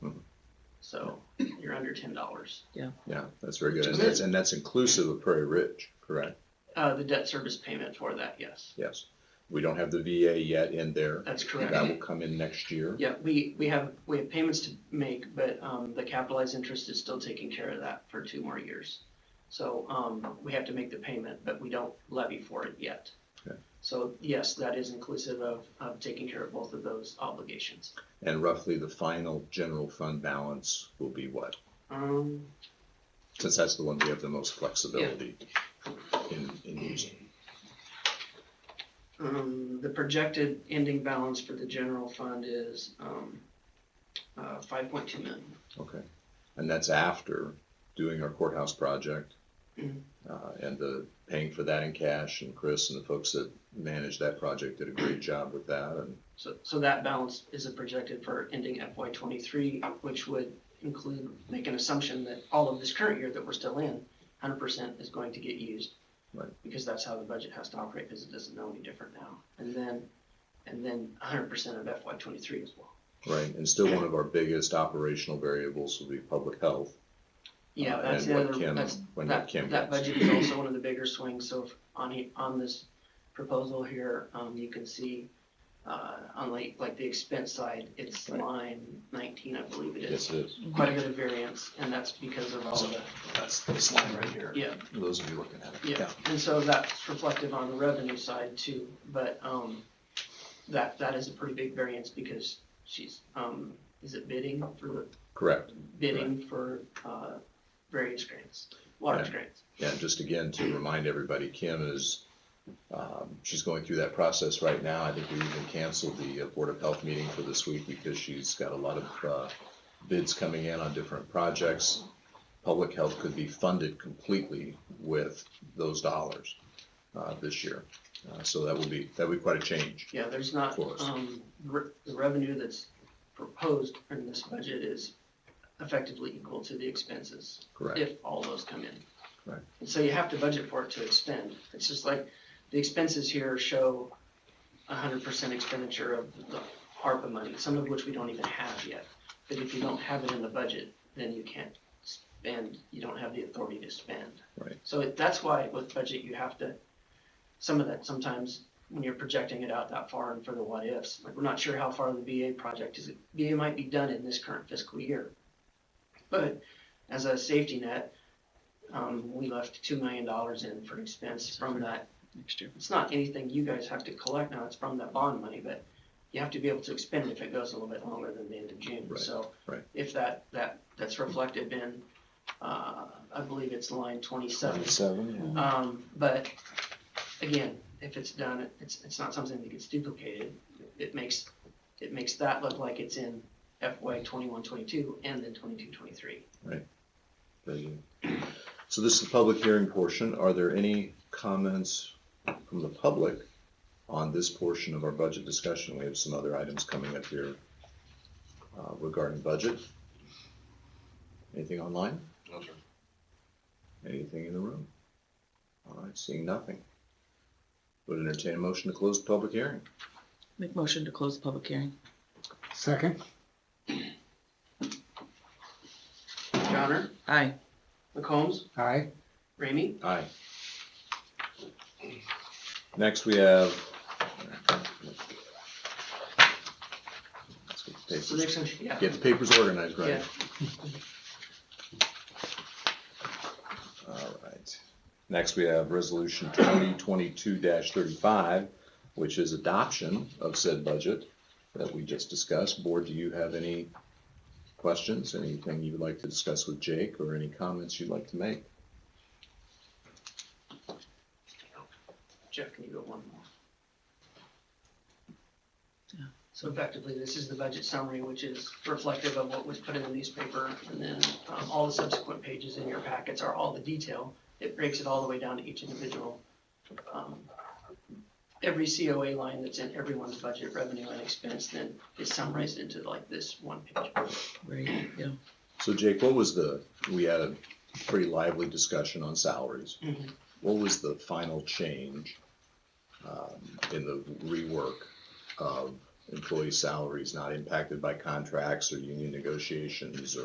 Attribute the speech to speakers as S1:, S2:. S1: so you're under ten dollars.
S2: Yeah, that's very good.
S1: Which
S2: And
S1: is
S2: that's,
S1: it.
S2: and that's inclusive of Prairie Ridge, correct?
S1: Uh, the debt service payment for that, yes,
S2: Yes. We don't have the VA yet in there.
S1: that's
S2: That
S1: correct.
S2: will come in next year.
S1: Yeah, we, we have, we have payments to make, but, um, the capitalized interest is still taking care of that for two more years. So, um, we have to make the payment, but we don't levy for it yet.
S2: Okay.
S1: So yes, that is inclusive of, of taking care of both of those obligations.
S2: And roughly the final general fund balance will be what?
S1: Um,
S2: Since that's the one we have the most flexibility in, in using.
S1: Um, the projected ending balance for the general fund is, um, uh, five point two million.
S2: Okay. And that's after doing our courthouse project.
S1: Mhm.
S2: Uh, and the paying for that in cash and Chris and the folks that managed that project did a great job with that and
S1: So, so that balance is projected for ending FY twenty-three, which would include, make an assumption that all of this current year that we're still in, hundred percent is going to get used.
S2: Right.
S1: Because that's how the budget has to operate, because it doesn't know any different now. And then, and then hundred percent of FY twenty-three as well.
S2: Right, and still one of our biggest operational variables will be public health.
S1: Yeah,
S2: uh,
S1: that's
S2: and
S1: the
S2: what
S1: other,
S2: Kim-
S1: that's,
S2: When
S1: That,
S2: Kim
S1: that
S2: gets.
S1: budget is also one of the bigger swings, so if- on, he- on this proposal here, um, you can see, uh, on like, like the expense side, it's
S2: Right.
S1: line nineteen, I believe it is.
S2: Yes, it is.
S1: Quite a bit of variance, and that's because of all the,
S2: That's this line right here.
S1: yeah,
S2: Those of you looking at it.
S1: yeah, and so that's reflective on the revenue side too, but, um, that, that is a pretty big variance because she's, um, is it bidding for,
S2: Correct.
S1: bidding for, uh, various grants, large
S2: Right.
S1: grants,
S2: Yeah, just again to remind everybody, Kim is, um, she's going through that process right now. I think we even canceled the uh, Board of Health meeting for this week because she's got a lot of, uh, bids coming in on different projects. Public health could be funded completely with those dollars, uh, this year. Uh, so that will be, that would be quite a change.
S1: Yeah, there's not,
S2: For us.
S1: um, re- the revenue that's proposed in this budget is effectively equal to the expenses,
S2: Correct.
S1: if all those come in.
S2: Right.
S1: And so you have to budget for it to expend, it's just like, the expenses here show hundred percent expenditure of the ARPA money, some of which we don't even have yet. But if you don't have it in the budget, then you can't spend, you don't have the authority to spend.
S2: Right.
S1: So it- that's why with budget, you have to, some of that, sometimes when you're projecting it out that far and for the what ifs. Like, we're not sure how far the VA project is, VA might be done in this current fiscal year. But as a safety net, um, we left two million dollars in for expense from that.
S3: next year.
S1: It's not anything you guys have to collect now, it's from that bond money, but you have to be able to expend it if it goes a little bit longer than the end of June.
S2: Right,
S1: So
S2: right.
S1: if that, that, that's reflective in, uh, I believe it's line twenty-seven.
S2: Seven.
S1: Um, but again, if it's done, it's, it's not something that gets duplicated. It makes, it makes that look like it's in FY twenty-one, twenty-two and then twenty-two, twenty-three.
S2: So this is the public hearing portion. Are there any comments from the public on this portion of our budget discussion? We have some other items coming up here uh, regarding budget. Anything online?
S4: No, sir.
S2: Anything in the room? All right, seeing nothing. Would entertain a motion to close the public hearing.
S3: Make motion to close the public hearing.
S5: Second,
S1: Johnner,
S3: Aye.
S1: McCombs,
S5: aye.
S1: Ramey,
S2: Aye. Next, we have. Let's get the papers.
S1: so there's some, yeah.
S2: Get the papers organized, right?
S1: Yeah.
S2: All right. Next, we have resolution twenty twenty-two thirty-five, which is adoption of said budget that we just discussed. Board, do you have any questions, anything you would like to discuss with Jake, or any comments you'd like to make?
S1: Jeff, can you go one more?
S3: Yeah.
S1: So effectively, this is the budget summary, which is reflective of what was put in the newspaper, and then um, all the subsequent pages in your packets are all the detail. It breaks it all the way down to each individual. um, Every COA line that's in everyone's budget, revenue and expense, then is summarized into like this one page.
S3: Right, yeah.
S2: So Jake, what was the, we had a pretty lively discussion on salaries.
S1: Mhm.
S2: What was the final change um, in the rework of employee salaries not impacted by contracts or union negotiations or?